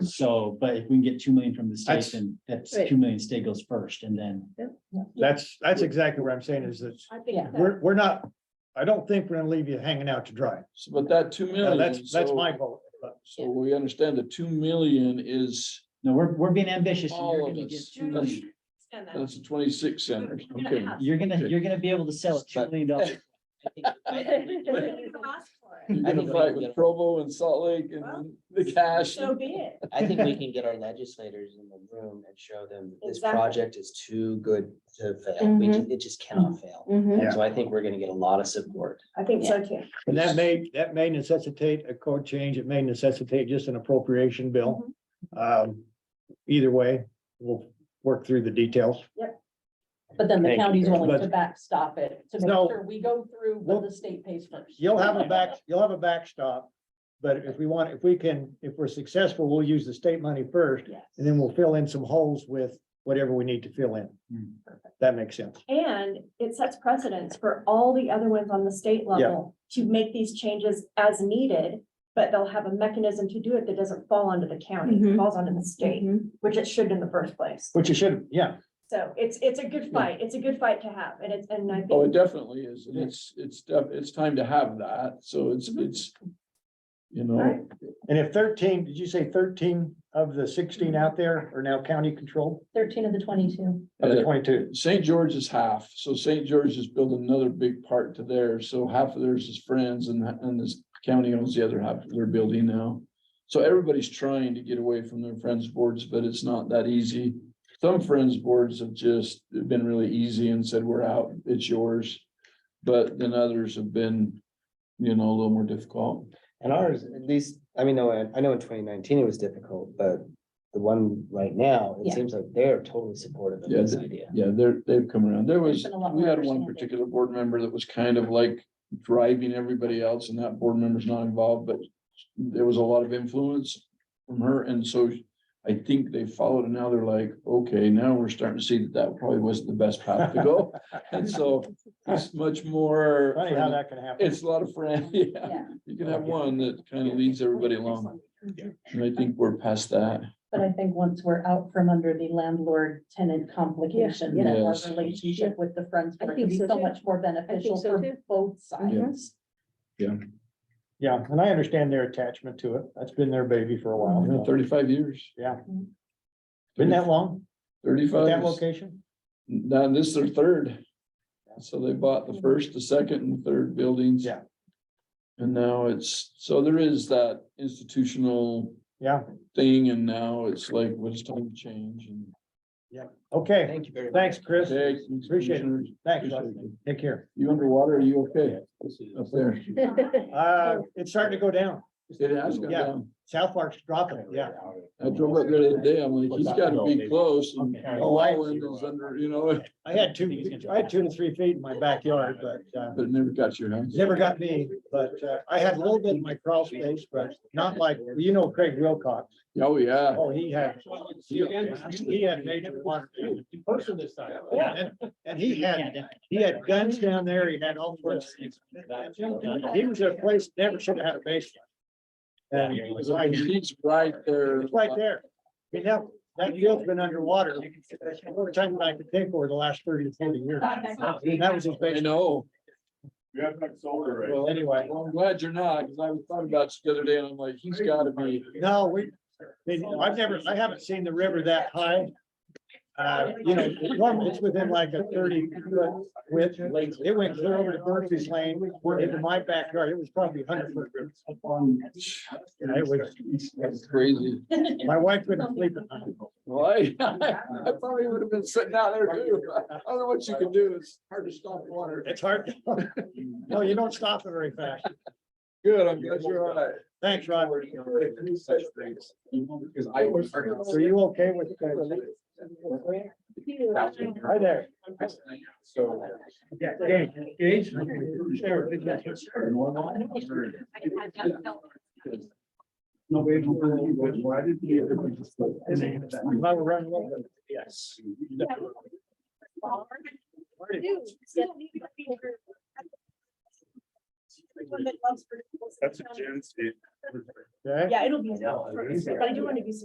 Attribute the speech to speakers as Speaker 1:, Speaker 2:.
Speaker 1: So, but if we can get two million from the state,
Speaker 2: That's-
Speaker 1: then that's
Speaker 3: Right.
Speaker 1: two million state goes first and then.
Speaker 2: That's, that's exactly what I'm saying is that
Speaker 3: I
Speaker 4: Yeah.
Speaker 3: think, that-
Speaker 2: we're, we're not, I don't think we're gonna leave you hanging out to dry.
Speaker 5: So, But that two
Speaker 2: No,
Speaker 5: million.
Speaker 2: That's, that's
Speaker 5: so-
Speaker 2: my vote. but
Speaker 5: So we understand the two million is,
Speaker 1: No, we're, we're being ambitious. and
Speaker 5: All
Speaker 1: You're
Speaker 5: of
Speaker 1: gonna get
Speaker 5: us.
Speaker 1: two
Speaker 5: That's-
Speaker 1: million.
Speaker 3: and that-
Speaker 5: that's the twenty-six centers.
Speaker 3: You're gonna
Speaker 5: Okay.
Speaker 3: have-
Speaker 1: You're gonna,
Speaker 5: Okay.
Speaker 1: you're gonna be able to sell a two million dollars.
Speaker 3: you're gonna ask for it.
Speaker 5: You're
Speaker 4: I
Speaker 5: gonna
Speaker 4: think we
Speaker 5: fight
Speaker 4: can
Speaker 5: with
Speaker 4: get-
Speaker 5: Provo and Salt Lake and
Speaker 3: Well,
Speaker 5: the cash.
Speaker 3: So be it.
Speaker 4: I think we can get our legislators in the room and show them this
Speaker 3: Exactly. Mm-hmm.
Speaker 4: project is too good to fail. We just, it just cannot fail.
Speaker 2: Yeah.
Speaker 4: So I think we're gonna get a lot of support.
Speaker 3: I think so too.
Speaker 2: And that may, that may necessitate a code change. It may necessitate just an appropriation bill.
Speaker 3: Mm-hmm.
Speaker 2: Um, either way, we'll work through the details.
Speaker 6: But then the
Speaker 2: Thank you
Speaker 6: county's
Speaker 2: very
Speaker 6: willing to
Speaker 2: much.
Speaker 6: backstop it, to make
Speaker 2: No.
Speaker 6: sure we go through
Speaker 2: Well,
Speaker 6: what the state pays first.
Speaker 2: You'll have a back, you'll have a backstop. But if we want, if we can, if we're successful, we'll use the state money first
Speaker 6: Yes.
Speaker 2: and then we'll fill in some holes with whatever we need to fill in.
Speaker 1: Hmm.
Speaker 2: That makes sense.
Speaker 3: And it sets precedents for all the other ones on the state level to make these changes as needed. But they'll have a mechanism to do it that doesn't fall under the county, it
Speaker 6: Mhm.
Speaker 3: falls under the state, which it should in the first place.
Speaker 2: Which you should, yeah,
Speaker 3: So it's, it's a good fight. It's a good fight to have and it's, and I
Speaker 5: Oh, it
Speaker 3: think,
Speaker 5: definitely is. And it's, it's, def- it's time to have that. So it's, it's, you know,
Speaker 3: Right.
Speaker 2: and if thirteen, did you say thirteen of the sixteen out there are now county controlled?
Speaker 6: Thirteen of the twenty-two.
Speaker 2: Of the
Speaker 5: Yeah.
Speaker 2: twenty-two?
Speaker 5: St. George is half. So St. George is building another big part to theirs. So half of theirs is friends and, and this county owns the other half of their building now. So everybody's trying to get away from their friends boards, but it's not that easy. Some friends boards have just been really easy and said, we're out, it's yours. But then others have been, you know, a little more difficult.
Speaker 4: And ours, at least, I mean, no, I- I know in twenty nineteen it was difficult, but the one right now, it
Speaker 6: Yeah.
Speaker 4: seems like they're totally supportive of
Speaker 5: Yeah,
Speaker 4: this
Speaker 5: they-
Speaker 4: idea.
Speaker 5: Yeah, they're, they've come around. There
Speaker 6: There's
Speaker 5: was,
Speaker 6: been a lot
Speaker 5: we
Speaker 6: more
Speaker 5: had one
Speaker 6: understanding.
Speaker 5: particular board member that was kind of like driving everybody else and that board member's not involved, but there was a lot of influence from her. And so I think they followed and now they're like, okay, now we're starting to see that that probably wasn't the best path to go. And so it's much more,
Speaker 2: Funny how that can happen.
Speaker 5: it's a lot of friends. Yeah,
Speaker 6: Yeah,
Speaker 5: you can have one that kind of leads everybody along. And I think we're past that.
Speaker 6: but I think once we're out from under the landlord-tenant complication,
Speaker 5: Yeah.
Speaker 6: that our
Speaker 5: Yes.
Speaker 6: relationship with the friends
Speaker 3: I
Speaker 6: board
Speaker 3: think
Speaker 6: can be
Speaker 3: so
Speaker 6: so
Speaker 3: too.
Speaker 6: much more beneficial
Speaker 3: so
Speaker 6: for
Speaker 3: too.
Speaker 6: both sides.
Speaker 2: Yeah, and I understand their attachment to it. That's been their baby for a
Speaker 5: You know,
Speaker 2: while.
Speaker 5: Thirty-five years.
Speaker 2: Yeah.
Speaker 6: Mm-hmm.
Speaker 2: Been that long? At
Speaker 5: Thirty-five.
Speaker 2: that
Speaker 5: is-
Speaker 2: location?
Speaker 5: Now, this is their third. So they bought the first, the second and third buildings.
Speaker 2: Yeah.
Speaker 5: And now it's, so there is that institutional
Speaker 2: Yeah,
Speaker 5: thing and now it's like, well, it's time to change and.
Speaker 2: okay.
Speaker 4: Thank you very much.
Speaker 2: Thanks, Chris.
Speaker 5: Okay,
Speaker 2: Appreciate it. Thanks.
Speaker 5: Appreciate
Speaker 2: Leslie.
Speaker 5: it.
Speaker 2: Take care.
Speaker 5: You underwater, are you okay? Up there.
Speaker 2: Uh, it's starting to go down.
Speaker 5: It has gone
Speaker 2: Yeah.
Speaker 5: down.
Speaker 2: South Park's dropping it, yeah.
Speaker 5: I drove up there the other day, I'm like, he's gotta be close. and
Speaker 1: Okay.
Speaker 5: The island is under, you know,
Speaker 2: I had two, I had two to three feet in my backyard, but, uh,
Speaker 5: but it never got you, huh?
Speaker 2: never got me, but, uh, I had a little bit in my crawl space, but not like, you know Craig Wilcox.
Speaker 5: Oh, yeah.
Speaker 2: Oh, he had, he had major water.
Speaker 1: Person this time.
Speaker 2: Yeah, and, and he had, he had guns down there. He had all sorts of things. He was at a place that never should have had a basement. And it was like,
Speaker 5: He's right there.
Speaker 2: it's right there. You know, that field's been underwater. That's the only time that I could think over the last thirty to forty years. And That was his
Speaker 5: I
Speaker 2: basement.
Speaker 5: know.
Speaker 7: You have like solar, right?
Speaker 5: Well,
Speaker 2: Anyway.
Speaker 5: Well, I'm glad you're not, because I was talking about you the other day, and I'm like, he's gotta be,
Speaker 2: No, we, I mean, I've never, I haven't seen the river that high. Uh, you know, normally it's within like a thirty foot width. It went clear over to Murphy's Lane, into my backyard. It was probably hundred foot. Yeah, it was-
Speaker 5: that's crazy.
Speaker 2: My wife couldn't sleep at night.
Speaker 5: Well, I, I probably would have been sitting out there too. I don't know what you can do. It's hard to stop water.
Speaker 2: It's hard. No, you don't stop it very fast.
Speaker 5: Good, I'm glad you're all right.
Speaker 2: Thanks, Rod.
Speaker 5: Because I was.
Speaker 2: So you okay with? Hi there.
Speaker 5: So.
Speaker 2: Yeah. Gage, Gage. Sure.
Speaker 7: No, wait, why did he?
Speaker 2: Well, we're running a little bit.
Speaker 7: Yes. That's a Jen's.
Speaker 2: Okay.
Speaker 3: Yeah, it'll be, but I do want to be